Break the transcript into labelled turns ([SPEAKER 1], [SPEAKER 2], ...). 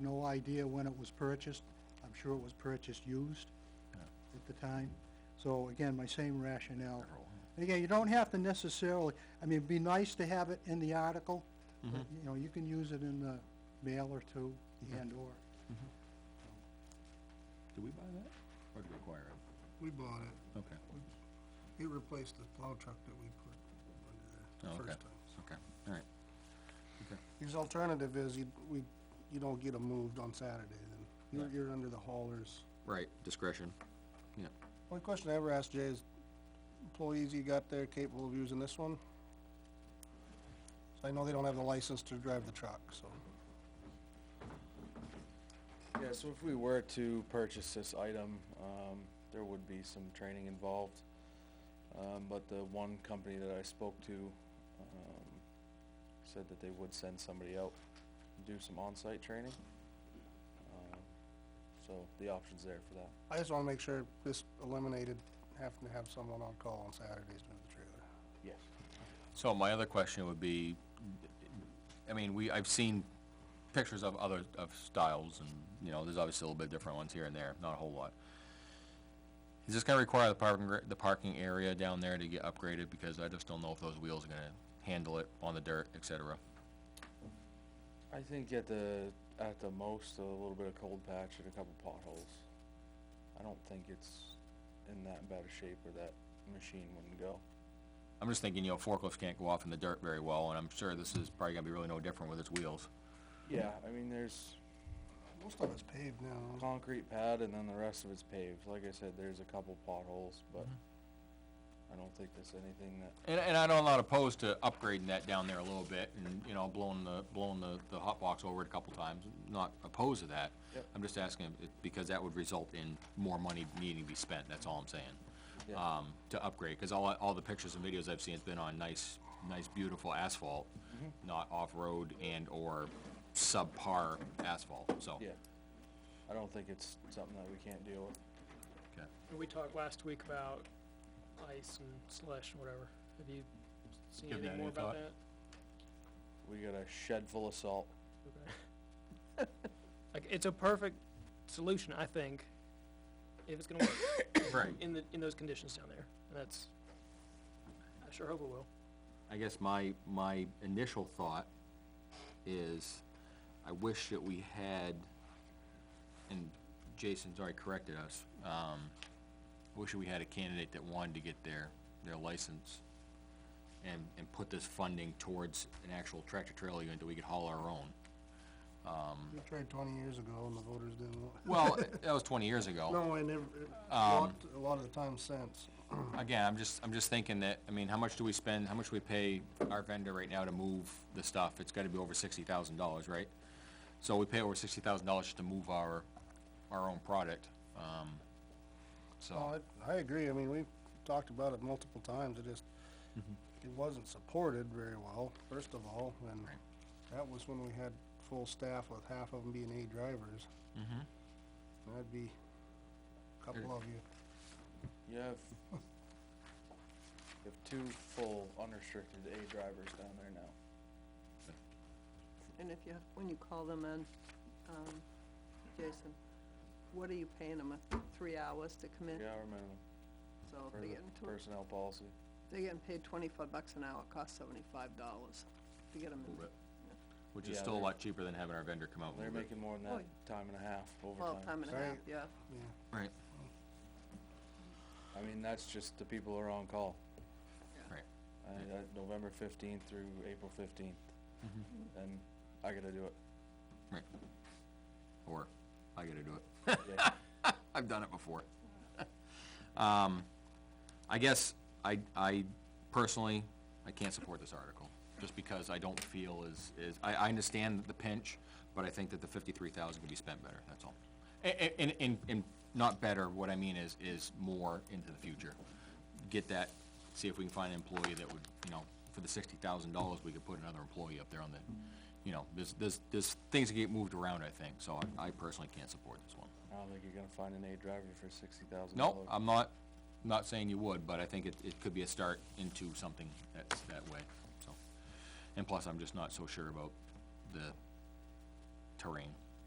[SPEAKER 1] no idea when it was purchased. I'm sure it was purchased used at the time. So again, my same rationale. And Again, you don't have to necessarily, I mean, it'd be nice to have it in the article, but, you know, you can use it in the mail or two, and/or.
[SPEAKER 2] Do we buy that, or do we acquire it?
[SPEAKER 3] We bought it.
[SPEAKER 2] Okay,
[SPEAKER 3] It replaced the plow truck that we put under there
[SPEAKER 2] Oh,
[SPEAKER 3] the
[SPEAKER 2] okay.
[SPEAKER 3] first time.
[SPEAKER 2] okay, all right. Okay,
[SPEAKER 3] His alternative is you, we, you don't get them moved on Saturday, then you're, you're under the haulers.
[SPEAKER 2] right, discretion, yeah.
[SPEAKER 3] Only question I ever asked Jay is, employees you got there capable of using this one? So I know they don't have the license to drive the truck, so.
[SPEAKER 4] Yeah, so if we were to purchase this item, um, there would be some training involved. Um, but the one company that I spoke to, um, said that they would send somebody out and do some on-site training. Um, So the option's there for that.
[SPEAKER 3] I just wanna make sure this eliminated having to have someone on call on Saturdays to move the trailer.
[SPEAKER 4] Yes.
[SPEAKER 2] So my other question would be, I mean, we, I've seen pictures of other, of styles, and, you know, there's obviously a little bit different ones here and there, not a whole lot. Is this gonna require the parking, gra- the parking area down there to get upgraded, because I just don't know if those wheels are gonna handle it on the dirt, et cetera?
[SPEAKER 4] I think at the, at the most, a little bit of cold patch and a couple potholes. I don't think it's in that bad of shape where that machine wouldn't go.
[SPEAKER 2] I'm just thinking, you know, forklifts can't go off in the dirt very well, and I'm sure this is probably gonna be really no different with its wheels.
[SPEAKER 4] Yeah, I mean, there's,
[SPEAKER 3] Most of it's paved now.
[SPEAKER 4] concrete pad and then the rest of it's paved. Like I said, there's a couple potholes, but I don't think there's anything that,
[SPEAKER 2] And, and I know I'm not opposed to upgrading that down there a little bit and, you know, blowing the, blowing the, the hot box over it a couple times, not opposed to that.
[SPEAKER 4] Yep.
[SPEAKER 2] I'm just asking, if- because that would result in more money needing to be spent, that's all I'm saying.
[SPEAKER 4] Yeah.
[SPEAKER 2] Um, to upgrade, cause all, I- all the pictures and videos I've seen, it's been on nice, nice beautiful asphalt,
[SPEAKER 4] Mm-hmm.
[SPEAKER 2] not off-road and or subpar asphalt, so.
[SPEAKER 4] yeah. I don't think it's something that we can't deal with.
[SPEAKER 2] okay.
[SPEAKER 5] We talked last week about ice and slush and whatever. Have you seen
[SPEAKER 2] Give that
[SPEAKER 5] anything more
[SPEAKER 2] any thought?
[SPEAKER 5] about that?
[SPEAKER 4] We got a shed full of salt.
[SPEAKER 5] Okay. Like, it's a perfect solution, I think, if it's gonna work
[SPEAKER 2] Right.
[SPEAKER 5] in the, in those conditions down there. And that's, I sure hope it will.
[SPEAKER 2] I guess my, my initial thought is, I wish that we had, and Jason's already corrected us, um, I wish we had a candidate that wanted to get their, their license and, and put this funding towards an actual tractor trailer unit that we could haul our own.
[SPEAKER 3] We tried twenty years ago and the voters didn't want.
[SPEAKER 2] Well, that was twenty years ago.
[SPEAKER 3] No, I never, a
[SPEAKER 2] Um.
[SPEAKER 3] lot, a lot of the time since.
[SPEAKER 2] Again, I'm just, I'm just thinking that, I mean, how much do we spend, how much do we pay our vendor right now to move the stuff? It's gotta be over sixty thousand dollars, right? So we pay over sixty thousand dollars just to move our, our own product, um, so,
[SPEAKER 3] No, I, I agree, I mean, we've talked about it multiple times, it just, it wasn't supported very well, first of all, and
[SPEAKER 2] Right.
[SPEAKER 3] that was when we had full staff with half of them being A drivers. Mm-hmm. That'd be a couple of you,
[SPEAKER 4] You have, you have two full unrestricted A drivers down there now.
[SPEAKER 6] And if you, have- when you call them in, um, Jason, what are you paying them, three hours to come in?
[SPEAKER 4] Three-hour minimum
[SPEAKER 6] So
[SPEAKER 4] for
[SPEAKER 6] they're getting,
[SPEAKER 4] the
[SPEAKER 6] tw-
[SPEAKER 4] personnel policy.
[SPEAKER 6] they're getting paid twenty-five bucks an hour, it costs seventy-five dollars to get them in.
[SPEAKER 2] move it. Which is
[SPEAKER 4] Yeah,
[SPEAKER 2] still a
[SPEAKER 4] they're-
[SPEAKER 2] lot cheaper than having our vendor come out
[SPEAKER 4] They're
[SPEAKER 2] and move it.
[SPEAKER 4] making more than
[SPEAKER 6] Oh,
[SPEAKER 4] that, time and a half
[SPEAKER 6] Well,
[SPEAKER 4] overtime.
[SPEAKER 6] time and a
[SPEAKER 3] Sorry.
[SPEAKER 6] half, yeah.
[SPEAKER 3] yeah.
[SPEAKER 2] Right,
[SPEAKER 4] I mean, that's just the people who are on call.
[SPEAKER 2] right.
[SPEAKER 4] I, I, Uh, November fifteenth through April fifteenth. And I gotta do it.
[SPEAKER 2] Or, I gotta do it.
[SPEAKER 4] Yeah.
[SPEAKER 2] I've done it before. Um, I guess I, I personally, I can't support this article, just because I don't feel is, is, I, I understand the pinch, but I think that the fifty-three thousand can be spent better, that's all. And, and, and, and not better, what I mean is, is more into the future. Get that, see if we can find an employee that would, you know, for the sixty thousand dollars, we could put another employee up there on the, you know, there's, there's, there's things that get moved around, I think, so I, I personally can't support this one.
[SPEAKER 4] I don't think you're gonna find an A driver for sixty thousand dollars.
[SPEAKER 2] No, I'm not, not saying you would, but I think it, it could be a start into something that's that way, so. And plus, I'm just not so sure about the terrain.